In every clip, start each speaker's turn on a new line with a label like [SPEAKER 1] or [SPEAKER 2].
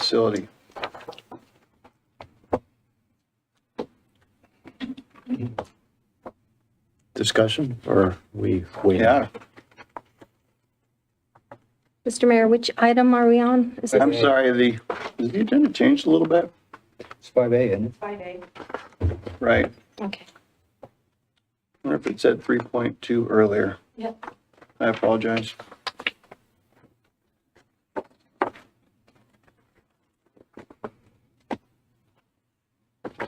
[SPEAKER 1] facility.
[SPEAKER 2] Discussion or we wait?
[SPEAKER 1] Yeah,
[SPEAKER 3] Mr. Mayor, which item are we on? Is it
[SPEAKER 1] I'm sorry, the, is the agenda changed a little bit?
[SPEAKER 4] It's five A, isn't it?
[SPEAKER 1] Right.
[SPEAKER 3] Okay.
[SPEAKER 1] I wonder if it said 3.2 earlier.
[SPEAKER 3] Yep.
[SPEAKER 1] I apologize.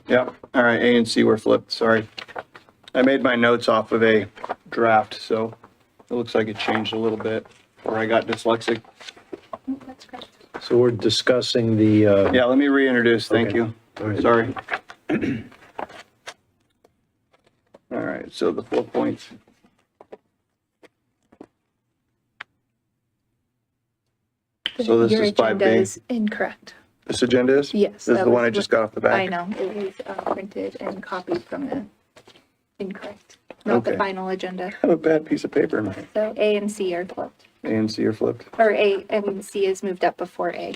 [SPEAKER 1] Yep, all right, A and C were flipped, sorry. I made my notes off of a draft, so it looks like it changed a little bit, or I got dyslexic.
[SPEAKER 2] So we're discussing the, uh,
[SPEAKER 1] Yeah, let me reintroduce, thank
[SPEAKER 2] Okay.
[SPEAKER 1] you.
[SPEAKER 2] all right.
[SPEAKER 1] Sorry. All right, so the four points. So this
[SPEAKER 3] Your
[SPEAKER 1] is five
[SPEAKER 3] agenda
[SPEAKER 1] B.
[SPEAKER 3] is incorrect.
[SPEAKER 1] This agenda is?
[SPEAKER 3] Yes,
[SPEAKER 1] This is
[SPEAKER 3] that
[SPEAKER 1] the one
[SPEAKER 3] was
[SPEAKER 1] I just
[SPEAKER 3] what-
[SPEAKER 1] got off the back?
[SPEAKER 3] I know, it was uh, printed and copied from the incorrect, not the
[SPEAKER 1] Okay.
[SPEAKER 3] final agenda.
[SPEAKER 1] I have a bad piece of paper in my,
[SPEAKER 3] So A and C are flipped,
[SPEAKER 1] A and C are flipped.
[SPEAKER 3] or A and C is moved up before A.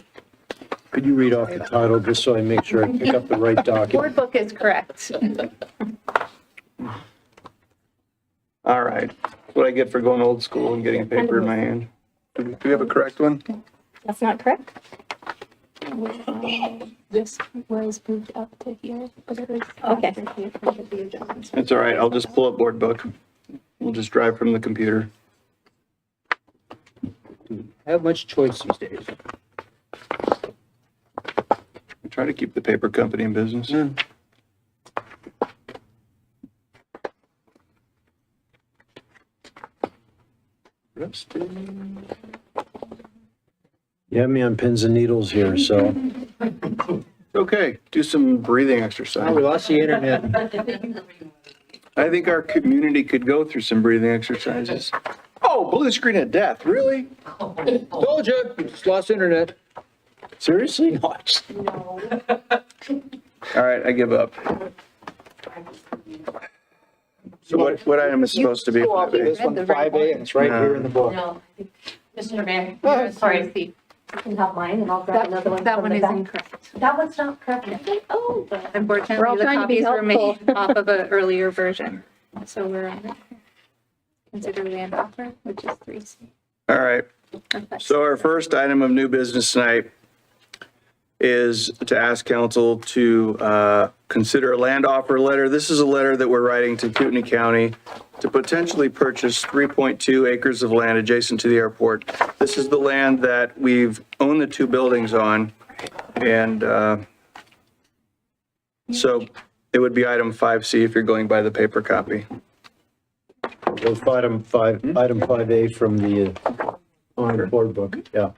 [SPEAKER 2] Could you read off the title just so I make sure I pick up the right document?
[SPEAKER 3] Board book is correct.
[SPEAKER 1] All right, That's what I get for going old school and getting a paper in my hand. Do we- do we have a correct one?
[SPEAKER 3] That's not correct?
[SPEAKER 5] This was moved up to here, but it was.
[SPEAKER 3] Okay.
[SPEAKER 5] after here for the adjustments.
[SPEAKER 1] It's all right, I'll just pull up board book. We'll just drive from the computer.
[SPEAKER 4] I have much choice these days.
[SPEAKER 1] I Try to keep the paper company in business.
[SPEAKER 4] Mm.
[SPEAKER 1] Rusty.
[SPEAKER 2] You have me on pins and needles here, so.
[SPEAKER 1] Okay, do some breathing exercise.
[SPEAKER 4] Oh, we lost the internet.
[SPEAKER 1] I think our community could go through some breathing exercises. Oh, blue screen of death, really?
[SPEAKER 4] Told you, just lost internet.
[SPEAKER 2] Seriously?
[SPEAKER 1] All right, I give up. So what, what item is supposed to be? five A?
[SPEAKER 4] This
[SPEAKER 5] Read
[SPEAKER 4] one,
[SPEAKER 5] the right
[SPEAKER 4] five A, and it's right here in the book.
[SPEAKER 5] No, Mr. Mayor,
[SPEAKER 4] Oh,
[SPEAKER 5] sorry, you can have mine and I'll grab
[SPEAKER 3] That
[SPEAKER 5] another one.
[SPEAKER 3] that
[SPEAKER 5] from
[SPEAKER 3] one
[SPEAKER 5] the
[SPEAKER 3] is
[SPEAKER 5] back.
[SPEAKER 3] incorrect.
[SPEAKER 5] That one's not correct. Oh, the-
[SPEAKER 3] Unfortunately, the
[SPEAKER 5] trying to be
[SPEAKER 3] copies were made
[SPEAKER 5] helpful.
[SPEAKER 3] off of an earlier version, so we're on consider land offer, which is three C.
[SPEAKER 1] All right, so our first item of new business tonight is to ask council to uh, consider a land offer letter. This is a letter that we're writing to Kootenai County to potentially purchase 3.2 acres of land adjacent to the airport. This is the land that we've owned the two buildings on, and uh, so it would be item 5C if you're going by the paper copy.
[SPEAKER 2] So item five,
[SPEAKER 1] Hmm?
[SPEAKER 2] item 5A from the, uh, on the board book, yeah.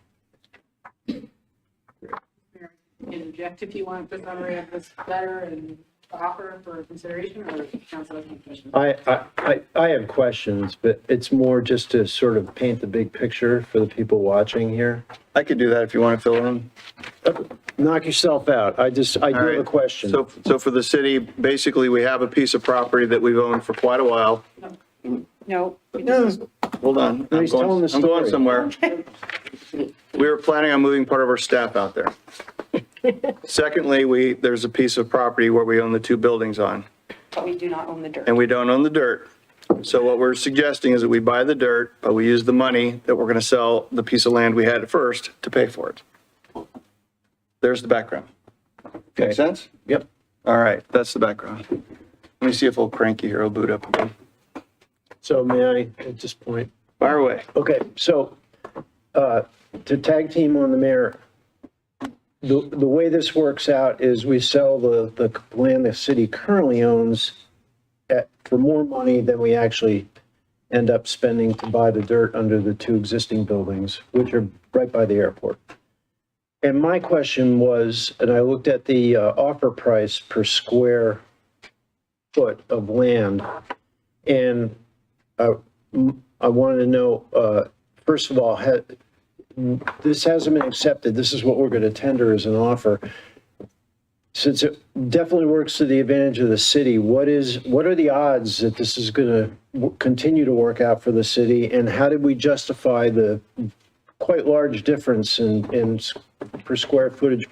[SPEAKER 6] interject if you want the summary of this letter and the offer for consideration or council has any questions.
[SPEAKER 2] I, I, I- I have questions, but it's more just to sort of paint the big picture for the people watching here.
[SPEAKER 1] I could do that if you want to fill in.
[SPEAKER 2] Knock yourself out. I just, I do
[SPEAKER 1] All
[SPEAKER 2] have a
[SPEAKER 1] right.
[SPEAKER 2] question.
[SPEAKER 1] So, so for the city, basically, we have a piece of property that we've owned for quite a while.
[SPEAKER 6] No.
[SPEAKER 1] Hold on. I'm
[SPEAKER 2] he's telling
[SPEAKER 1] going,
[SPEAKER 2] the
[SPEAKER 1] I'm going
[SPEAKER 2] story.
[SPEAKER 1] somewhere. We were planning on moving part of our staff out there. Secondly, we, there's a piece of property where we own the two buildings on,
[SPEAKER 6] But we do not own the dirt.
[SPEAKER 1] and we don't own the dirt. So what we're suggesting is that we buy the dirt, but we use the money that we're going to sell the piece of land we had at first to pay for it. There's the background. Make sense?
[SPEAKER 2] Yep.
[SPEAKER 1] All right, that's the background. Let me see if old cranky here will boot up again.
[SPEAKER 2] So may I, at this point,
[SPEAKER 1] Fire away.
[SPEAKER 2] okay, so, uh, to tag team on the mayor, the, the way this works out is we sell the, the land the city currently owns at, for more money than we actually end up spending to buy the dirt under the two existing buildings, which are right by the airport. And my question was, and I looked at the uh, offer price per square foot of land, and uh, m- I wanted to know, uh, first of all, ha- this hasn't been accepted, this is what we're going to tender as an offer. Since it definitely works to the advantage of the city, what is, what are the odds that this is going to continue to work out for the city? And how did we justify the quite large difference in, in s- per square footage